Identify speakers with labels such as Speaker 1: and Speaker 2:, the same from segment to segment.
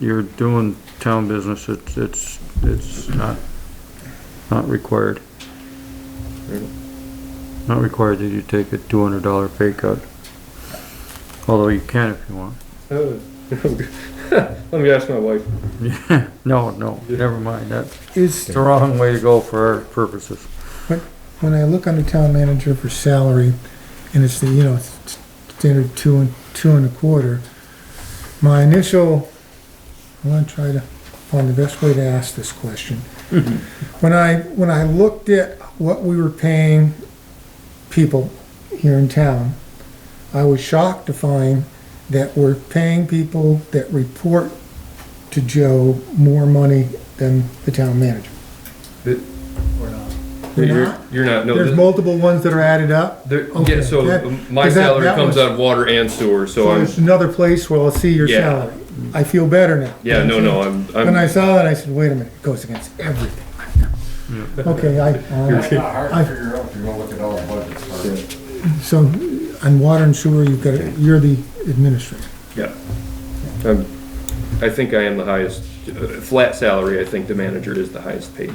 Speaker 1: you're doing town business, it's, it's, it's not, not required. Not required that you take a two hundred dollar pay cut. Although you can if you want.
Speaker 2: Oh. Let me ask my wife.
Speaker 1: No, no, never mind, that's
Speaker 3: Is,
Speaker 1: the wrong way to go for our purposes.
Speaker 3: when I look under town manager for salary, and it's the, you know, it's standard two and, two and a quarter, my initial, I'm gonna try to find the best way to ask this question. When I, when I looked at what we were paying people here in town, I was shocked to find that we're paying people that report to Joe more money than the town manager. We're
Speaker 2: You're
Speaker 3: not?
Speaker 2: You're not, no.
Speaker 3: There's
Speaker 2: th-
Speaker 3: multiple ones that are added up.
Speaker 2: there-
Speaker 3: okay,
Speaker 2: Yeah, so um,
Speaker 3: that-
Speaker 2: my
Speaker 3: 'cause that-
Speaker 2: salary
Speaker 3: that
Speaker 2: comes
Speaker 3: was-
Speaker 2: out of water and sewer, so
Speaker 3: So
Speaker 2: I'm,
Speaker 3: there's another place where I'll see your
Speaker 2: Yeah.
Speaker 3: salary. I feel better now.
Speaker 2: yeah, no, no, I'm,
Speaker 3: When I
Speaker 2: I'm,
Speaker 3: saw that, I said, wait a minute, it goes against everything. Okay, I,
Speaker 4: It's
Speaker 3: uh,
Speaker 4: not hard
Speaker 3: I-
Speaker 4: to figure out if you're gonna look at all the budgets first.
Speaker 3: so on water and sewer, you've got, it- you're the administrator.
Speaker 2: yeah. I'm, I think I am the highest, uh, flat salary, I think the manager is the highest paid.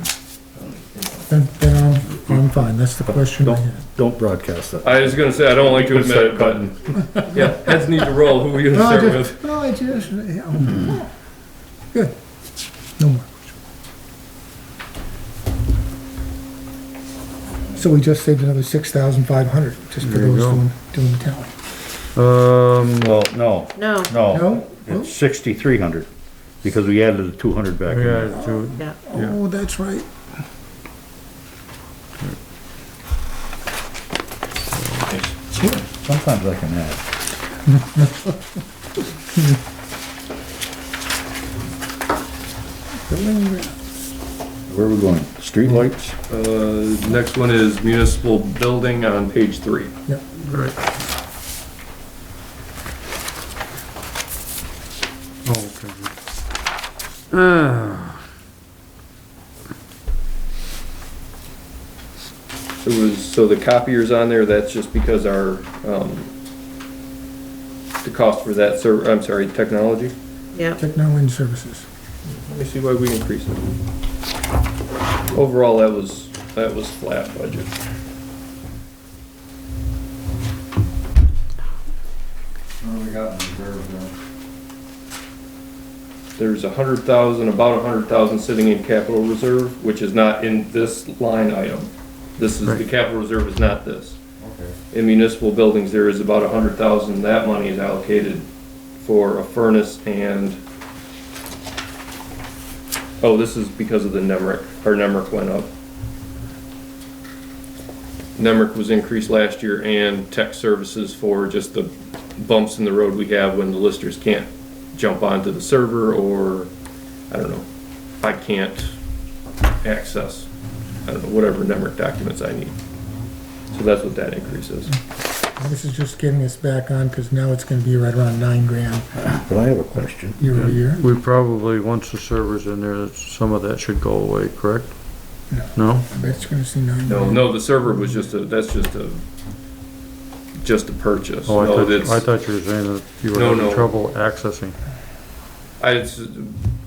Speaker 3: Then, then I'm, I'm fine. That's the question I had.
Speaker 5: Don't broadcast that.
Speaker 2: I was gonna say, I don't like to admit it, but, yeah, heads need to roll, who are we
Speaker 3: No,
Speaker 2: gonna
Speaker 3: I
Speaker 2: start
Speaker 3: just,
Speaker 2: with?
Speaker 3: no, I just, yeah, I'm- good. No more. So we just saved another six thousand five hundred just for
Speaker 1: There you
Speaker 3: those
Speaker 1: go.
Speaker 3: doing, doing the town.
Speaker 1: Um,
Speaker 5: Well, no,
Speaker 6: No,
Speaker 2: Oh.
Speaker 5: no.
Speaker 3: No?
Speaker 5: It's sixty-three hundred, because we added the two hundred back in. there.
Speaker 1: yeah, do,
Speaker 6: yeah.
Speaker 3: Oh, that's right.
Speaker 5: Sometimes I can add.
Speaker 3: Building-
Speaker 5: Where are we going? Streetlights?
Speaker 2: Uh, next one is municipal building on page three.
Speaker 1: right. Oh, okay. Ah,
Speaker 2: It was, so the copier's on there, that's just because our, um, the cost for that server, I'm sorry, technology?
Speaker 6: Yep.
Speaker 3: Technology services.
Speaker 2: Let me see why we increased it. Overall, that was, that was flat budget.
Speaker 4: What do we got in reserve there?
Speaker 2: There's a hundred thousand, about a hundred thousand sitting in capital reserve, which is not in this line item. This is, the
Speaker 1: Right.
Speaker 2: capital reserve is not this.
Speaker 4: Okay,
Speaker 2: In municipal buildings, there is about a hundred thousand, that money is allocated for a furnace and, oh, this is because of the NEMRIC, our NEMRIC went up. NEMRIC was increased last year and tech services for just the bumps in the road we have when the listers can't jump onto the server or, I don't know, I can't access, I don't know, whatever NEMRIC documents I need. So that's what that increase is.
Speaker 3: This is just getting us back on, because now it's gonna be right around nine grand
Speaker 5: But I have a question.
Speaker 3: year over year.
Speaker 1: we probably, once the server's in there, that's- some of that should go away, correct?
Speaker 3: No.
Speaker 1: No?
Speaker 3: I bet you're gonna see nine
Speaker 2: No,
Speaker 3: grand.
Speaker 2: no, the server was just a, that's just a, just a purchase.
Speaker 1: Oh, I
Speaker 2: No,
Speaker 1: thought, I
Speaker 2: that's,
Speaker 1: thought you were saying that you were
Speaker 2: No,
Speaker 1: having
Speaker 2: no.
Speaker 1: trouble accessing.
Speaker 2: I, it's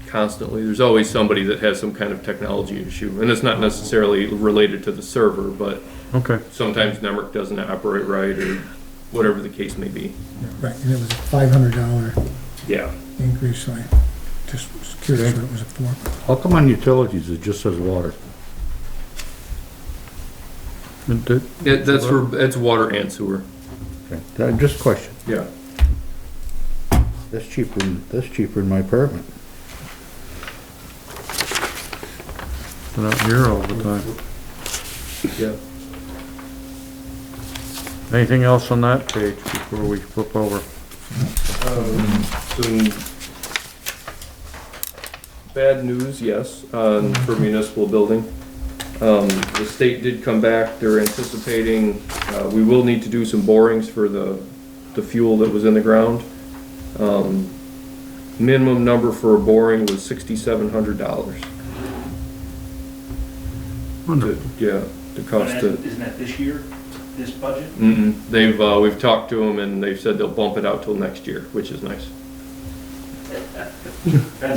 Speaker 2: constantly, there's always somebody that has some kind of technology issue. And it's not necessarily related to the server, but
Speaker 1: Okay,
Speaker 2: sometimes network doesn't operate right or whatever the case may be.
Speaker 3: Right, and it was a five hundred dollar
Speaker 2: Yeah.
Speaker 3: increase, so I just was curious what it was for.
Speaker 5: How come on utilities it just says water?
Speaker 1: It did-
Speaker 2: It, that's for, that's water and sewer.
Speaker 5: Okay, uh, Just a question.
Speaker 2: Yeah.
Speaker 5: That's cheaper, than- that's cheaper in my apartment.
Speaker 1: they're not here all the time.
Speaker 2: Yeah.
Speaker 1: Anything else on that page before we flip over?
Speaker 2: Um, Some bad news, yes, um, for municipal building. Um, The state did come back, they're anticipating, uh, we will need to do some borings for the, the fuel that was in the ground. Um, Minimum number for a boring was sixty-seven hundred dollars.
Speaker 1: Wonderful.
Speaker 2: Yeah, the cost of.
Speaker 7: Isn't that this year, this budget?
Speaker 2: Mm-mm. They've, uh, we've talked to them and they've said they'll bump it out till next year, which is nice.
Speaker 7: That's